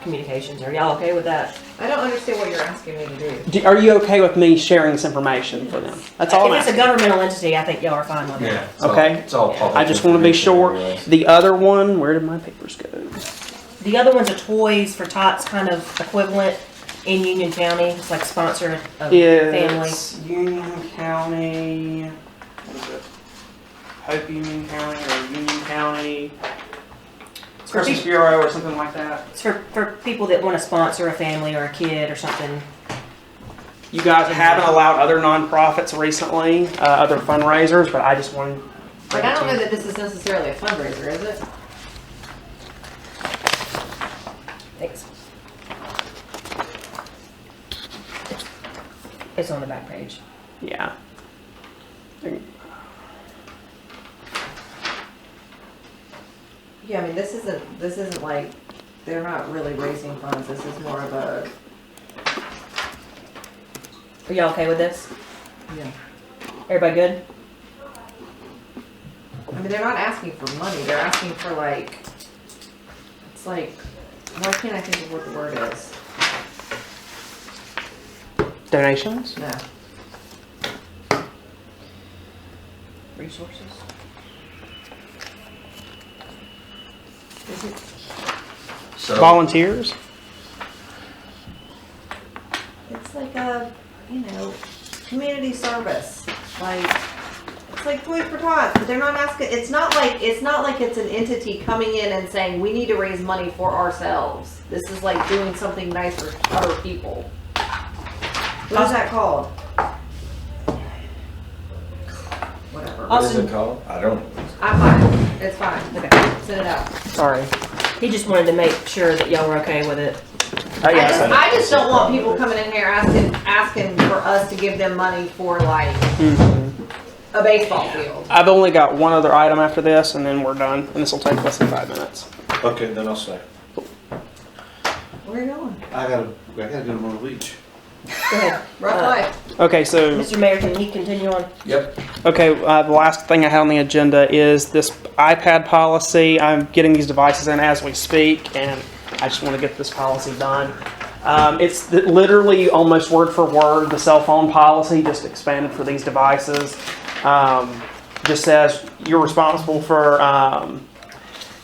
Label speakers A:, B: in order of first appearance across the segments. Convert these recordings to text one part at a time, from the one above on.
A: communications. Are y'all okay with that?
B: I don't understand what you're asking me to do.
C: Do, are you okay with me sharing this information for them? That's all I'm
A: If it's a
C: asking.
A: governmental entity, I think y'all are fine with
D: Yeah.
A: that.
D: it's all-
C: Okay.
D: It's all public.
C: I just want to be
D: information
C: sure.
D: anyway.
C: The other one, where did my papers go?
A: The other one's a Toys for Tots kind of equivalent in Union County. It's like sponsor of family.
C: It's Union County. What is it? Hope Union County or Union County Christmas Bureau or something like that.
A: It's for, for people that want to sponsor a family or a kid or something.
C: You guys haven't allowed other nonprofits recently, uh, other fundraisers, but I just wanted.
B: Like, I don't know that this is necessarily a fundraiser, is it?
A: Thanks. It's on the back page.
C: Yeah.
B: Yeah, I mean, this isn't, this isn't like, they're not really raising funds, this is more of a,
A: Are y'all okay with this?
B: yeah.
A: Everybody good?
B: I mean, they're not asking for money, they're asking for like, it's like, why can't I think of what the word is?
C: Donations?
B: No.
A: Resources.
B: Is it-
D: So,
C: Volunteers?
B: It's like a, you know, community service, like, it's like Toys for Tots, but they're not asking, it's not like, it's not like it's an entity coming in and saying, we need to raise money for ourselves. This is like doing something nice for other people. What is that called? Whatever.
D: what is it called? I don't.
B: I'm fine, it's fine, okay, send it out.
C: Sorry.
A: He just wanted to make sure that y'all were okay with it.
C: Oh,
B: I just,
C: yeah.
B: I just don't want people coming in here asking, asking for us to give them money for like
C: Mhm.
B: a baseball field.
C: I've only got one other item after this, and then we're done. And this will take less than five minutes.
D: Okay, then I'll say.
B: Where are you going?
D: I gotta, I gotta do more leach.
A: Go ahead.
B: Rough
A: Uh,
B: life.
C: Okay, so.
A: Mr. Mayor, can he continue on?
D: Yep.
C: Okay, uh, the last thing I had on the agenda is this iPad policy. I'm getting these devices in as we speak, and I just want to get this policy done. Um, it's th- literally almost word for word the cell phone policy, just expanded for these devices. Um, just says you're responsible for um,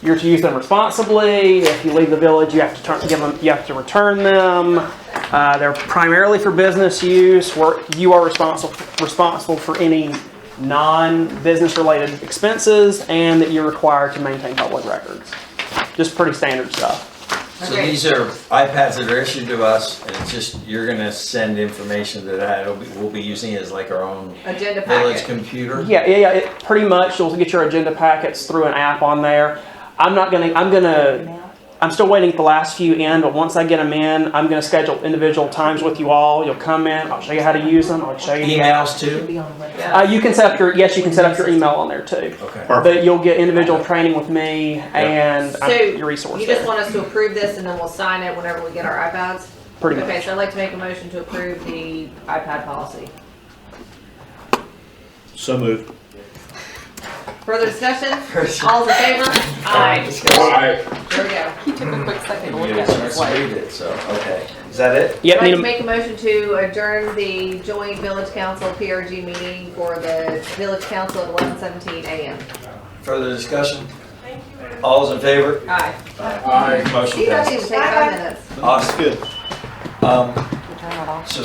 C: you're to use them responsibly. If you leave the village, you have to turn, give them, you have to return them. Uh, they're primarily for business use. Where you are responsible responsible for any non-business related expenses, and that you're required to maintain public records. Just pretty standard stuff.
D: So
B: Okay.
D: these are iPads that are issued to us, and it's just, you're gonna send information to that, it'll be, we'll be using it as like our own
B: Agenda
D: village
B: packet.
D: computer.
C: Yeah, yeah, yeah. It, pretty much, you'll get your agenda packets through an app on there. I'm not gonna. I'm gonna. I'm still waiting for the last few in, but once I get them in, I'm gonna schedule individual times with you all. You'll come in. I'll show you how to use them. I'll show you.
D: Emails
A: Should
D: too?
A: be on the website.
C: Uh, you can set up your yes, you can set up your email on there too.
D: Okay.
C: But you'll get individual training with me and
B: So,
C: I'm your resource
B: You just
C: there,
B: want us to approve this and then we'll sign it whenever we get our iPads?
C: pretty
B: Okay,
C: much.
B: so I'd like to make a motion to approve the iPad policy.
E: So moved.
B: Further discussion? All in favor? Aye. There we go.
F: He took a quick second to look
D: Yeah,
F: at it,
D: let's
F: like,
D: read it, so, okay. Is that it?
C: Yep,
B: I'd like
C: need
B: to
C: a-
B: make a motion to adjourn the joint village council PRG meeting for the village council at eleven seventeen AM.
D: Further discussion? All's in favor?
B: Aye.
D: Motion
B: You don't need to
D: passes.
B: take five minutes.
D: Awesome.
E: Good.
D: Um,
F: turn it off.
D: so